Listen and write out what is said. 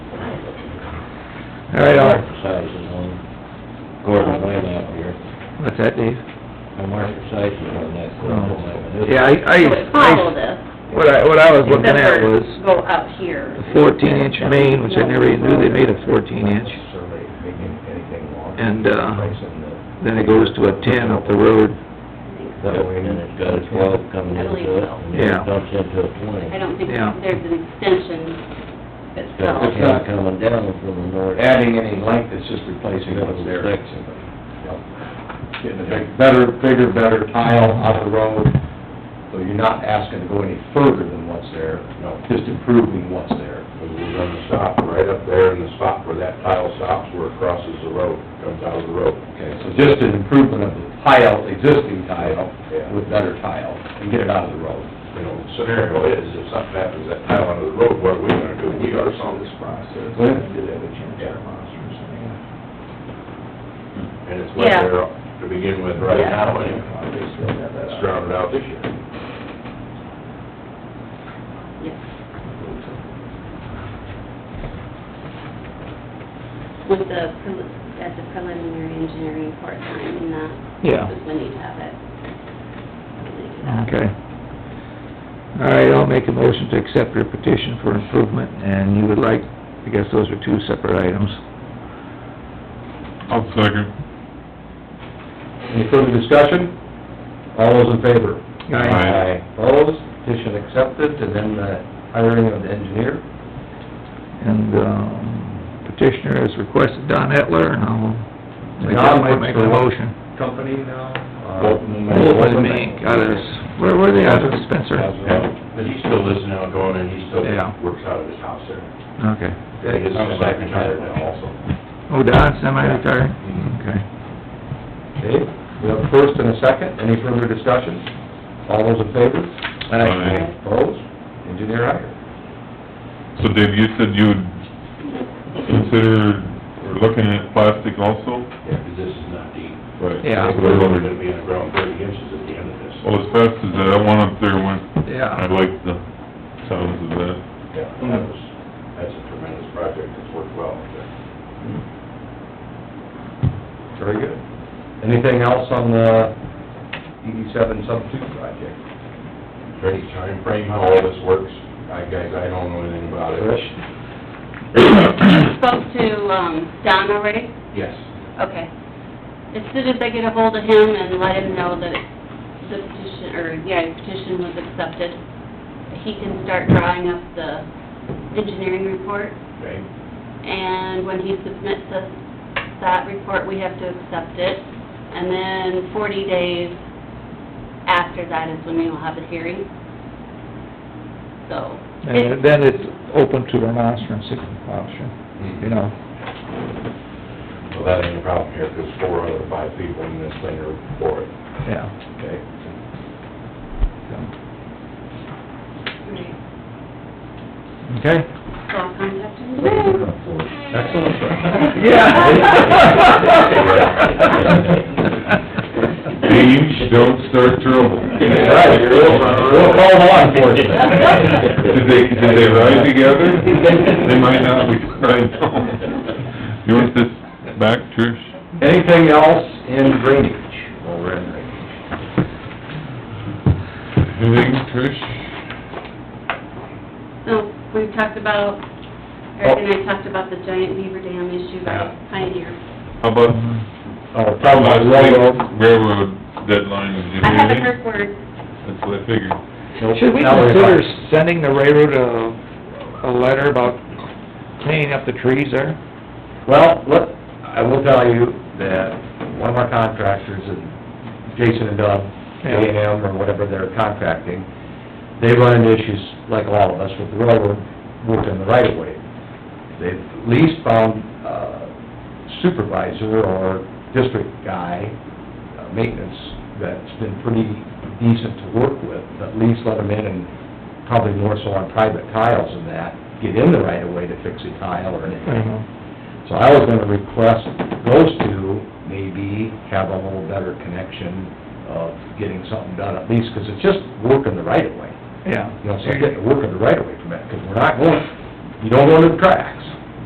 All right, Art. Sizes on Gordon Lane out here, What's that, Dave? I marked the sizes on that Gordon Lane. Oh. Yeah, I, I, So it's I- follow this. what I, what I was looking Except at for was Go up here. a fourteen inch main, which I never even knew they made a fourteen inch. Necessarily making anything wrong. And, uh, Pricing the- Then it goes to a ten up the road. That way, and it's got a twelve coming I into believe it, so. and then Yeah. it dumps into a twenty. I don't think Yeah. there's an extension It's itself. got a ten coming down from the north. adding any length, it's just replacing what's there. Section. Getting a big- better, bigger, better tile out of the road, so you're not asking to go any further than what's there, you know, just improving what's there. And we're gonna stop right up there in the spot where that tile stops, where it crosses the road, comes out of the road. Okay, so just an improvement of the tile, existing tile, Yeah. with better tile, and get it out of the road. You know, the scenario is, if something happens, that tile under the road, what are we gonna do? We are on this process. Well, Yeah. And it's wet Yeah. there to begin with right Yeah. now, and it's drowned out this year. Yes. With the, pre- at the preliminary engineering part time and that. Yeah. Is when you have it. Okay. All right, I'll make a motion to accept your petition for improvement, and you would like, I guess those are two separate items. I'll second. Any further discussion? All those in favor? Aye. Opposed, petition accepted, and then the hiring of the engineer. And, um, petitioner has requested Don Etler, and I'll make that Don my, works make for a what? motion. Company now? uh, Open Mink, out of, Uh, where were they, out of Spencer? But he still lives in Algonah, and he still Yeah. works out of his house there. Okay. And his son's retired now also. Oh, Don, semi-retired? Okay. Okay, we have a first and a second, any further discussion? All those in favor? Aye. Opposed? Engineer Iyer. So Dave, you said you would consider, or looking at plastic also? Yeah, 'cause this is not deep. Right. Yeah. That's We're what I only wondered. gonna be on the ground thirty inches at the end of this. Well, as fast as that, I went up there went, I Yeah. liked the sounds of that. Yeah, that was, that's a tremendous project, it's worked well. Very good. Anything else on the DD seven substitute project? Very timeframe, how all this works, I, guys, I don't know anything about it. Mm-hmm. You Spoke to, um, Don already? Yes. Okay. As soon as I get a hold of him and let him know that the petition, or, yeah, his petition was accepted, he can start drawing up the engineering report, Okay, and when he submits us that report, we have to accept it. And then forty days after that is when we will have a hearing. So. And then it's open to remonstrance if option, you know. well, that ain't a problem here, 'cause four other five people in this thing are for it. Yeah. Okay. so. Right. Okay? So I'll contact him today. Excellent. Dave, don't start trouble. Right, we'll call law enforcement. Did they, did they ride together? They might not be, I know. You want this back, Trish? Anything else in drainage? Well, we're in drainage. Anything, Trish? So, we've talked about, Eric and I talked about the giant beaver dam issue by Pioneer. How about, Oh, how probably about railroad. railroad deadline, did you I hear haven't anything? heard word, That's what I figured. Should we consider sending the railroad a, a letter about cleaning up the trees there? Well, look, I will tell you that one of our contractors, and Jason and Doug, Yeah. A and M or whatever they're contracting, they run into issues like all of us with the railroad working the right of way. They've at least found uh, supervisor or district guy, uh, maintenance, that's been pretty decent to work with, at least let them in and probably more so on private tiles than that, get in the right of way to fix a tile or anything. So I was gonna request those two maybe have a little better connection of getting something done at least, 'cause it's just working the right of way. Yeah. You know, so getting to work in the right of way from that, 'cause we're not going, you don't go to the tracks.